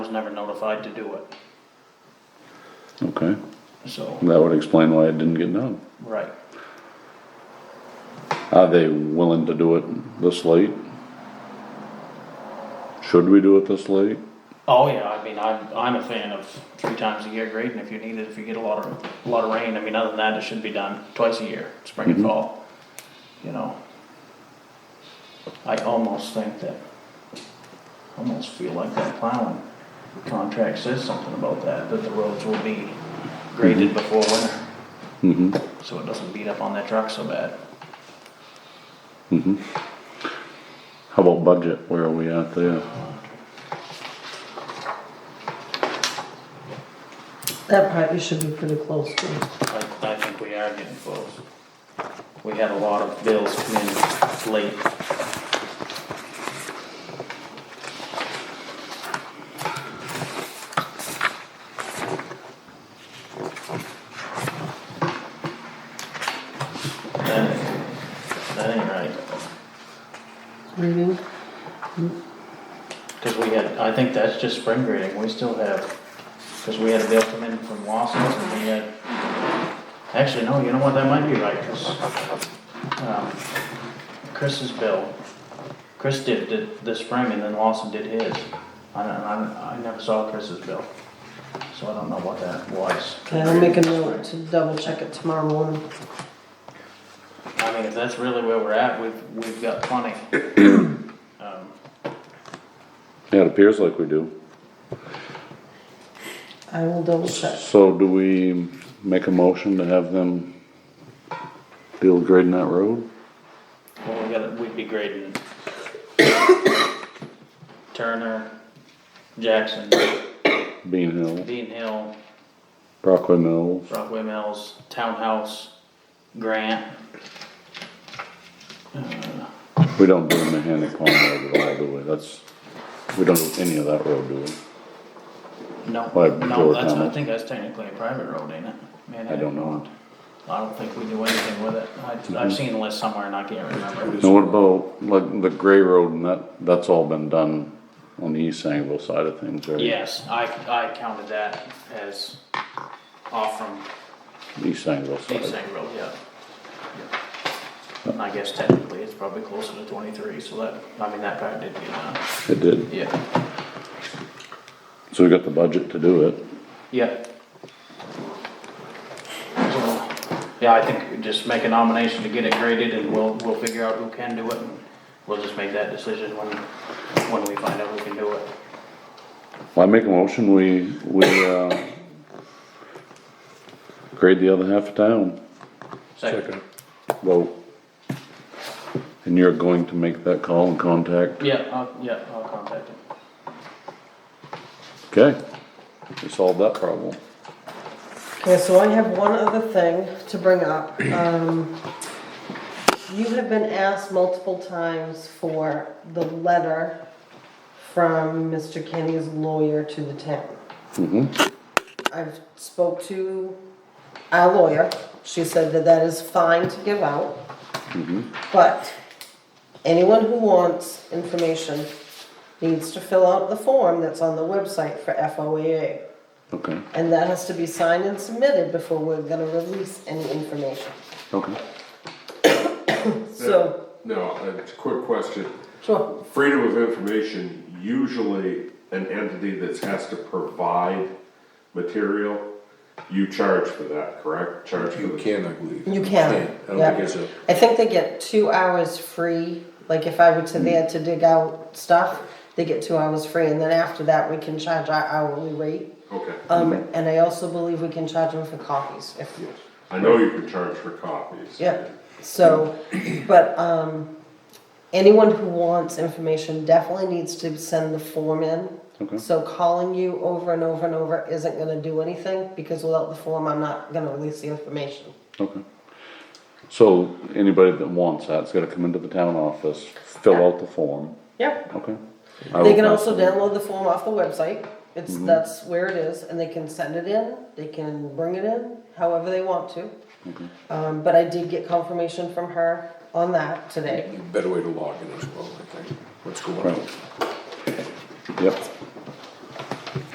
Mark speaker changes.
Speaker 1: never notified to do it,
Speaker 2: Okay,
Speaker 1: so,
Speaker 2: that would explain why it didn't get done.
Speaker 1: right.
Speaker 2: Are they willing to do it this late? Should we do it this late?
Speaker 1: Oh, yeah, I mean, I'm, I'm a fan of three times a year grading if you need it, if you get a lot of, a lot of rain, I mean, other than that, it should be done twice a year, spring and fall, you know. I almost think that, almost feel like that plowing contract says something about that, that the roads will be graded before winter,
Speaker 2: Mm-hmm,
Speaker 1: so it doesn't beat up on their truck so bad.
Speaker 2: mm-hmm. How about budget, where are we at there?
Speaker 3: That part you should be pretty close to.
Speaker 1: I, I think we are getting close. We had a lot of bills come in late. That ain't- that ain't right,
Speaker 3: Reading,
Speaker 1: cause we had, I think that's just spring grading, we still have, cause we had a bill come in from Lawson, and we had, actually, no, you know what, that might be right, cause um, Chris's bill. Chris did, did this spring and then Lawson did his. I don't, I, I never saw Chris's bill, so I don't know what that was.
Speaker 3: okay, I'll make a note to double check it tomorrow morning.
Speaker 1: I mean, if that's really where we're at, we've, we've got plenty. Um,
Speaker 2: Yeah, it appears like we do.
Speaker 3: I will double check.
Speaker 2: So do we make a motion to have them build grading that road?
Speaker 1: Well, we gotta, we'd be grading Turner, Jackson,
Speaker 2: Bean Hill,
Speaker 1: Dean Hill,
Speaker 2: Brockway Mills,
Speaker 1: Brockway Mills, Townhouse, Grant. Uh,
Speaker 2: we don't do Mahanic Pond Road at all, do we? That's, we don't do any of that road, do we?
Speaker 1: No,
Speaker 2: By
Speaker 1: no,
Speaker 2: George
Speaker 1: that's, I
Speaker 2: Hamilton.
Speaker 1: think that's technically a private road, ain't it? Man,
Speaker 2: I don't Mm-hmm. know.
Speaker 1: I don't think we do anything with it. I, I've seen a list somewhere and I can't remember.
Speaker 2: Now what about, like, the gray road and that, that's all been done on the East Sangerville side of things, right?
Speaker 1: Yes, I, I counted that as off from
Speaker 2: East Sangerville
Speaker 1: East
Speaker 2: side.
Speaker 1: Sang Road, yeah. I guess technically it's probably closer to twenty-three, so that, I mean, that part did get done.
Speaker 2: It did,
Speaker 1: Yeah,
Speaker 2: so we got the budget to do it.
Speaker 1: yeah. So, Yeah, I think we just make a nomination to get it graded and we'll, we'll figure out who can do it and we'll just make that decision when, when we find out who can do it.
Speaker 2: Well, I make a motion, we, we, uh, grade the other half of town,
Speaker 1: Second.
Speaker 2: vote. And you're going to make that call and contact,
Speaker 1: Yeah, I'll, yeah, I'll contact him.
Speaker 2: okay? We solved that problem.
Speaker 3: Okay, so I have one other thing to bring up. Um, you have been asked multiple times for the letter from Mr. Kenny's lawyer to the town.
Speaker 2: Mm-hmm,
Speaker 3: I've spoke to our lawyer, she said that that is fine to give out.
Speaker 4: Mm-hmm.
Speaker 3: But anyone who wants information needs to fill out the form that's on the website for FOAA.
Speaker 2: okay,
Speaker 3: And that has to be signed and submitted before we're gonna release any information.
Speaker 2: okay.
Speaker 3: So,
Speaker 5: Now, uh, a quick question.
Speaker 3: sure,
Speaker 5: Freedom of information, usually an entity that has to provide material, you charge for that, correct? Charge for
Speaker 4: You
Speaker 5: the.
Speaker 4: can, I believe.
Speaker 3: you can,
Speaker 4: I don't think
Speaker 3: yeah.
Speaker 4: it's a,
Speaker 3: I think they get two hours free, like if I were to there to dig out stuff, they get two hours free, and then after that, we can charge our hourly rate.
Speaker 5: Okay.
Speaker 3: Um, and I also believe we can charge them for coffees if,
Speaker 5: Yes. I know you can charge for copies.
Speaker 3: yeah, so, but, um, anyone who wants information definitely needs to send the form in.
Speaker 2: Okay.
Speaker 3: So calling you over and over and over isn't gonna do anything, because without the form, I'm not gonna release the information.
Speaker 2: Okay. So anybody that wants that's gotta come into the town office, fill out the form,
Speaker 3: Yep.
Speaker 2: okay?
Speaker 3: They can also download the form off the website, it's, that's where it is, and they can send it in, they can bring it in, however they want to. Um, but I did get confirmation from her on that today.
Speaker 4: a better way to log in as well, I think, what's going
Speaker 2: Right.
Speaker 4: on.
Speaker 2: Yep,